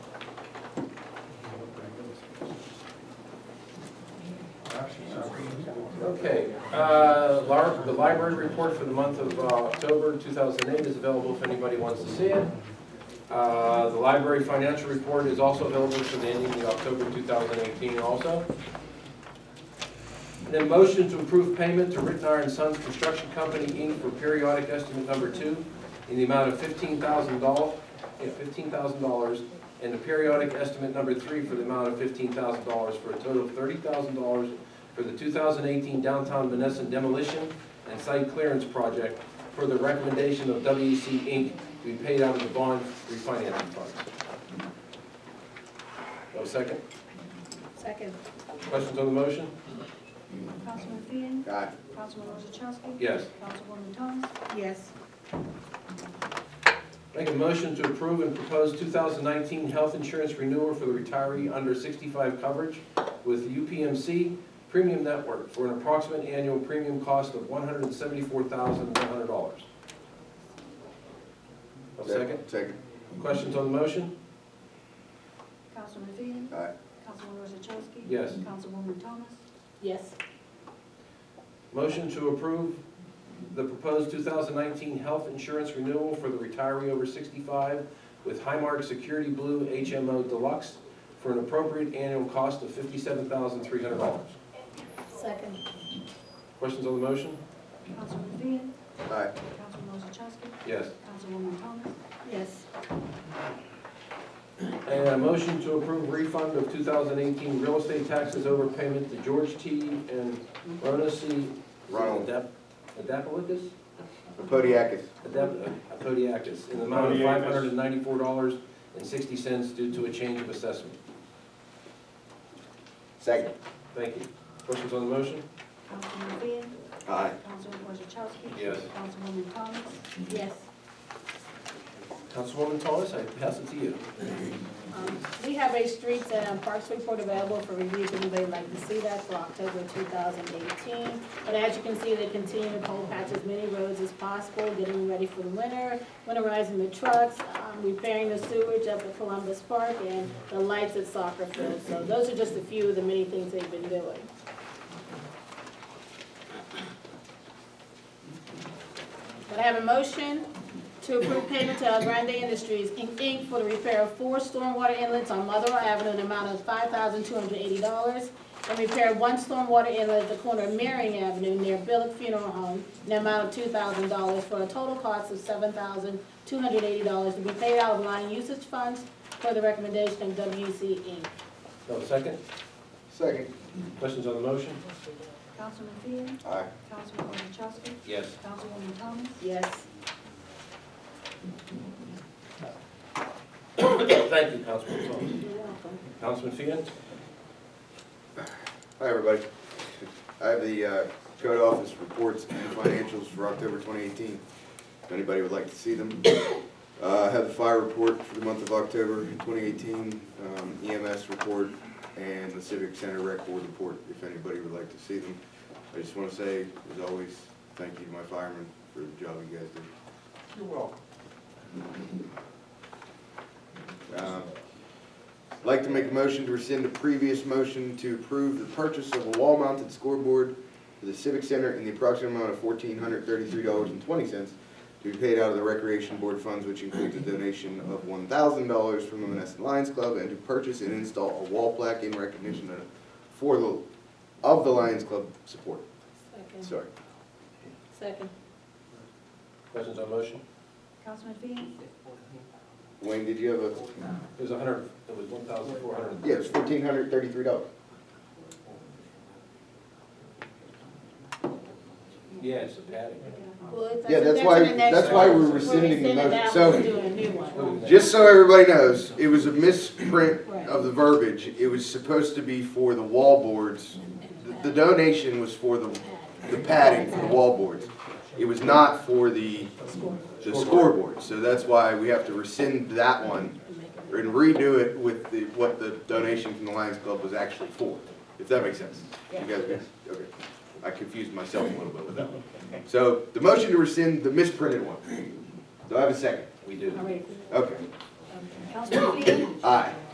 Okay, uh, lar- the library report for the month of uh, October 2008 is available if anybody wants to see it. Uh, The library financial report is also available for the ending of October 2018 also. And then motion to approve payment to Ritten Iron Sons Construction Company, Inc. for periodic estimate number two in the amount of $15,000, yeah, $15,000, and the periodic estimate number three for the amount of $15,000, for a total of $30,000 for the 2018 downtown Menneson demolition and site clearance project for the recommendation of WEC Inc. to be paid out of the bond refinancing funds. No second? Second. Questions on the motion? Councilman Finn, Aye. Councilwoman Wozzachowski. Yes. Councilwoman Thomas. Yes. Make a motion to approve and propose 2019 health insurance renewal for the retiree under 65 coverage with UPMC Premium Network for an approximate annual premium cost of $174,100. No second? Second. Questions on the motion? Councilman Finn, Aye. Councilwoman Wozzachowski. Yes. Councilwoman Thomas. Yes. Motion to approve the proposed 2019 health insurance renewal for the retiree over 65 with Highmark Security Blue HMO Deluxe for an appropriate annual cost of $57,300. Second. Questions on the motion? Councilman Finn, Aye. Councilwoman Wozzachowski. Yes. Councilwoman Thomas. Yes. And a motion to approve refund of 2018 real estate taxes overpayment to George T. and Rona C. Ronald. Adap- Adapolicus? Podiakus. Adep- Apodiakis, uh, in the amount of five hundred and ninety-four dollars and sixty cents due to a change of assessment. Second. Thank you. Questions on the motion? Councilman Finn, Aye. Councilwoman Wozzachowski. Yes. Councilwoman Thomas. Yes. Councilwoman Thomas, I pass it to you. Um, We have a streets and parks report available for review if anybody would like to see that for October 2018. But as you can see, they continue to cold patch as many roads as possible, getting ready for the winter, winterizing the trucks, um, repairing the sewage up at Columbus Park, and the lights at soccer field. So those are just a few of the many things they've been doing. But I have a motion to approve payment to El Grande Industries, Inc. Inc. for the repair of four stormwater inlets on Motherwell Avenue in the amount of five thousand two hundred eighty dollars, and repair one stormwater inlet at the corner of Marion Avenue near Billick Funeral Home in the amount of two thousand dollars for a total cost of seven thousand two hundred eighty dollars to be paid out of line usage funds for the recommendation of WC Inc. No second? Second. Questions on the motion? Councilman Finn, Aye. Councilwoman Wozzachowski. Yes. Councilwoman Thomas. Yes. Thank you, Councilwoman Thomas. You're welcome. Councilman Fian? Hi, everybody. I have the uh, code office reports and financials for October 2018. If anybody would like to see them. Uh, I have the fire report for the month of October 2018, um, EMS report, and the Civic Center Rec Board report, if anybody would like to see them. I just want to say, as always, thank you to my firemen for the job you guys do. You're welcome. Um, I'd Like to make a motion to rescind the previous motion to approve the purchase of a wall-mounted scoreboard for the Civic Center in the approximate amount of fourteen hundred thirty-three dollars and twenty cents to be paid out of the Recreation Board funds, which includes a donation of one thousand dollars from the Menneson Lions Club, and to purchase and install a wall plaque in recognition of, for the, of the Lions Club support. Second. Sorry. Second. Questions on the motion? Councilman Finn, Wayne, did you have a, It was a hundred, it was one thousand four hundred. yeah, it's fourteen hundred thirty-three dollars. Yeah, it's a padding. Well, if Yeah, that's if why- an extra- that's why we're we're rescinding the rescinding that motion. one, So- we're doing a new one. Just so everybody knows, it was a misprint of the verbiage. It was supposed to be for the wall boards. The- The donation was for the, the padding for the wall boards. It was not for the, the scoreboard. So that's why we have to rescind that one and redo it with the, what the donation from the Lions Club was actually for, if that makes sense. You guys, okay. I confused myself a little bit with that one. So the motion to rescind the misprinted one. Do I have a second? We do. All right. Okay. Councilman Finn, Aye.